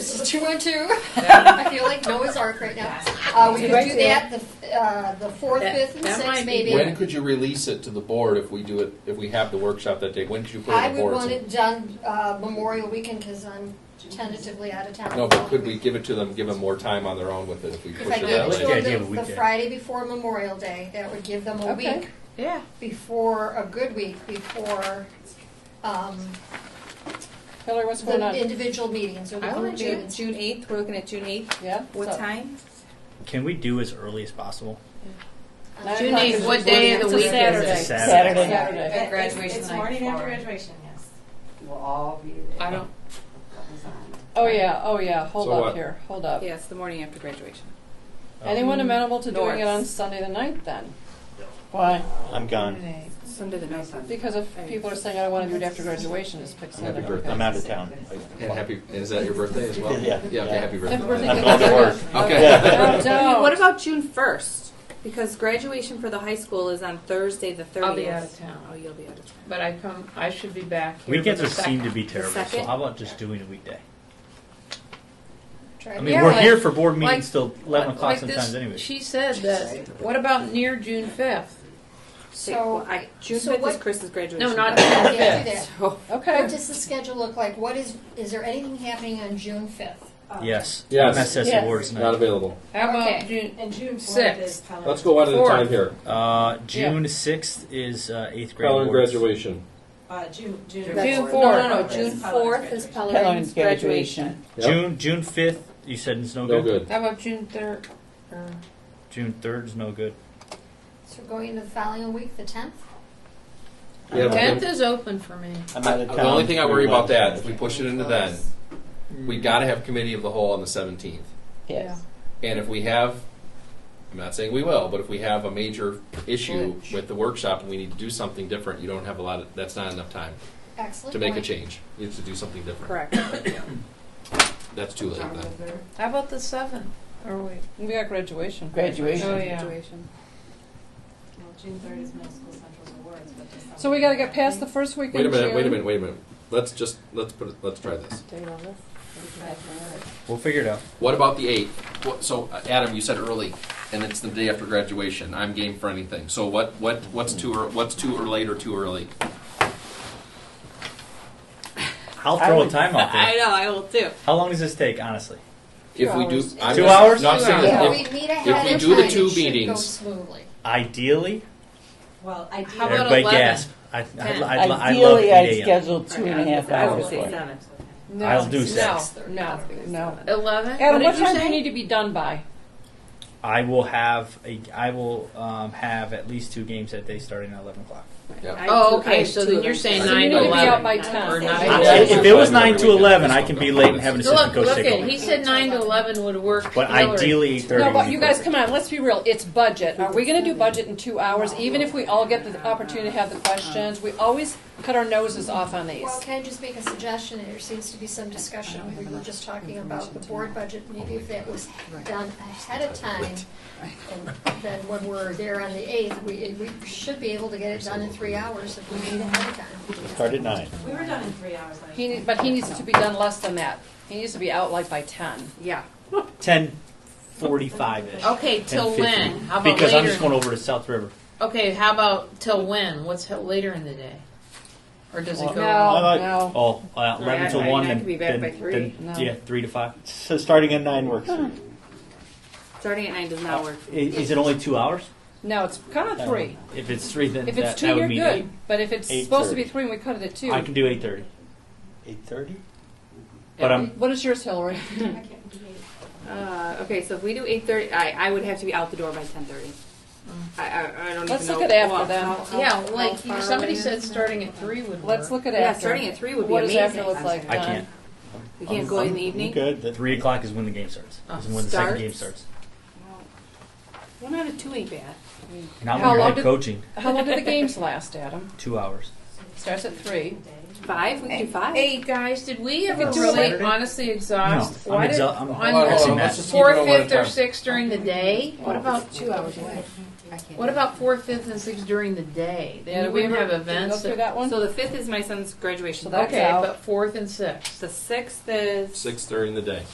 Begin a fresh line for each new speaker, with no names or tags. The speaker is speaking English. two and two.
Yeah.
I feel like Noah's Ark right now. Uh, we could do that, the, f- uh, the fourth,
That-
fifth, and
that might
sixth,
be
maybe.
When could you release it to the board if we do it, if we have the workshop that day? When could you put it
I
on the
would
board?
want it done uh, Memorial Weekend because I'm tentatively out of town.
No, but could we give it to them, give them more time on their own with it if we
If
push
I
it
gave
that
it
way?
to
Yeah, give it a
them the- the
weekend.
Friday before Memorial Day, that would give them a
Okay.
week
Yeah.
before, a good week before um,
Hillary, what's going on?
the individual meetings or the
I
group
want to do
meetings.
June eighth. We're looking at June eighth.
Yeah?
What
so-
time?
Can we do as early as possible?
Uh,
June
not
8th,
the-
what
day of the week is it?
It's a
Saturday.
It's-
Saturday.
At graduation
It's
night
morning after
for-
graduation, yes. We'll all be there.
I don't,
What was on.
oh yeah, oh yeah, hold
So
up
what?
here, hold up.
Yes, the morning after graduation.
Anyone
Mm-hmm.
amenable to doing it
North.
on Sunday the ninth then? Why?
I'm gone.
Sunday the ninth.
Because if people are saying, I don't wanna do it after graduation, just pick
Happy
Sunday.
birthday.
I'm out of town.
And happy, is that your birthday as well?
Yeah.
Yeah, okay, happy birthday.
Happy birthday.
I'm going to work.
Okay.
Yeah. Don't.
What about June first? Because graduation for the high school is on Thursday the thirtieth.
I'll be out of town.
Oh, you'll be out of town.
But I come, I should be back here.
Weekends
for
are,
the
seem to
second.
be terrible, so
second?
how about just doing a weekday?
Try
I
to-
mean,
Yeah,
we're
like-
here for board meetings
like-
till 11
Like
o'clock
this-
sometimes, anyway.
She said that, what about near June fifth?
So,
Well, I, June
so
fifth
what-
is Chris's graduation.
No, not
but-
June
Yeah, do
fifth.
that.
So
Okay,
What does the schedule look like? What is, is there anything happening on June fifth?
Yes.
Yes.
MSS
Yes.
awards
Not
night.
available.
How
Okay.
about June,
And June fourth
Six.
is Pelican.
Let's go one at a
Fourth.
time here.
Uh, June 6th is uh, eighth grade
Colin
awards.
graduation.
Uh, June, June.
June
fourth.
fourth.
No, no, no.
Fourth
June
is
fourth is
Pelican's
Pelican's graduation.
Yep.
June June 5th, you said it's no,
No good.
how about June uh, third? Or
June 3rd is no good.
So we're going into the following week, the tenth?
Yeah, but
Tenth
then-
is open for me.
I'm out of town.
The only thing I worry about that, if
Wednesday.
we push it into then, we gotta have committee of the whole on the seventeenth.
Yes.
And if we have, I'm not saying we will, but if we have a major issue with the workshop and we need to do something different, you don't have a lot of, that's not enough time
Excellent
to make a
point.
change. You have to do something different.
Correct.
That's too late then.
How about the seventh? Or wait,
we got graduation.
oh
Graduation.
yeah.
Graduation.
Well, June third is middle school central's awards, but. the
So we gotta
summer-
get past the first week in
Wait a
June.
minute, wait a minute, wait a minute. Let's just, let's put it, let's try this.
We'll figure it out.
What about the eighth? What, so uh, Adam, you said early, and it's the day after graduation. I'm game for anything. So what, what, what's too, ear- what's too ear- late or too early?
I'll throw a time out
I
there.
know. I will too.
How long does this take, honhonestly?
If we do,
hours.
I'm
Two
just-
hours?
No, I'm
Two
saying
hours.
if-
If
Yeah,
we meet ahead
if we
of
do the
time, it
two
should go
meetings-
smoothly.
Ideally,
Well,
How about
everybody
11?
gasp. I, I'd,
Ten.
I'd, I'd love 8 a.m.
Two and a half
hours. Seven.
No,
I'll do
no,
six.
No, no.
Eleven?
Adam,
What
what
did you
time do you need
say?
to be done by?
I will have a, I will um, have at least two games that day starting at 11 o'clock.
Yeah.
Oh, okay, so then you're saying
So
you
nine
need to
to
be out
eleven.
by ten.
Or
I-
nine
I-
to
if
eleven.
it was 9 to 11, I can be late and have an assistant
Look,
coach
look
take
at,
over.
he said nine to eleven would work.
But
Hillary.
ideally, 8.30
No,
would
but
be
you guys,
perfect.
come on, let's be real. It's budget. Are we gonna do budget in two hours, even if we all get the opportunity to have the questions? We always cut our noses off on these.
Well, can I just make a suggestion? There seems to be some discussion. We were just talking about the board budget. Maybe if that was done ahead of time, and then when we're there on the eighth, we, we should be able to get it done in three hours if we meet ahead of time.
Start at nine.
We were done in three hours. last
He,
night.
need- but he needs to be done less than that. He needs to be out like by ten.
Yeah.
10.45-ish.
Okay, Oh, till
10:50.
when? How about
Because I'm
later?
just going over to South River.
Okay, how about till when? What's h- later in the day? Or does it go?
No.
I like-
no.
Oh, uh, 11
I-
to
I-
1,
I
then,
could be back
then,
by three.
then-
No.
yeah, 3 to 5.
So starting at nine works. for you.
Starting at nine does not work.
I- Is it only two hours? Uh,
No, it's kinda three.
If it's three, then
If
that,
it's two,
that would
you're
mean
good, but if it's
eight
supposed to be
thirty.
three and we cut it at two,
eight. I can do eight thirty,
Eight thirty?
but I'm
what is yours, Hillary?
Uh, okay, so if we do eight thirty, I, I would have to be out the door by ten thirty. I, I, I don't
Mm. Let's
even
look
know.
at after
well,
then.
how- how-
Yeah,
how
like you-
far
somebody
away it
said,
is.
starting at three would work.
Let's look at
Yeah,
after.
starting at three would be
What does
amazing.
after look like?
I
Done.
can't.
We can't go in the evening. Uh,
Good. That-
Three o'clock is when the game starts.
Oh,
Is when the
starts?
second game starts.
One out of two ain't bad.
And I'm
How
your
long
head
did-
coaching
How long do the games last, Adam?
two hours.
Starts at three.
Five, we can do five.
Hey guys, did we ever
do
really
Saturday?
honestly exhaust?
No,
why
I'm exa-
did,
I'm
on
Hold on, hold
actually
on,
mad.
let's just keep it
fourth,
on one at a
fifth, or
time.
sixth during the day? What about
Two hours away.
what about fourth, fifth, and sixth during the day? Then
Yeah,
you
do we
wouldn't
ever-
have
did we Go
events.
through
that-
that one?
So the fifth is my son's graduation.
So that-
okay,
out.
but fourth and sixth.
The sixth is.
Six during the day.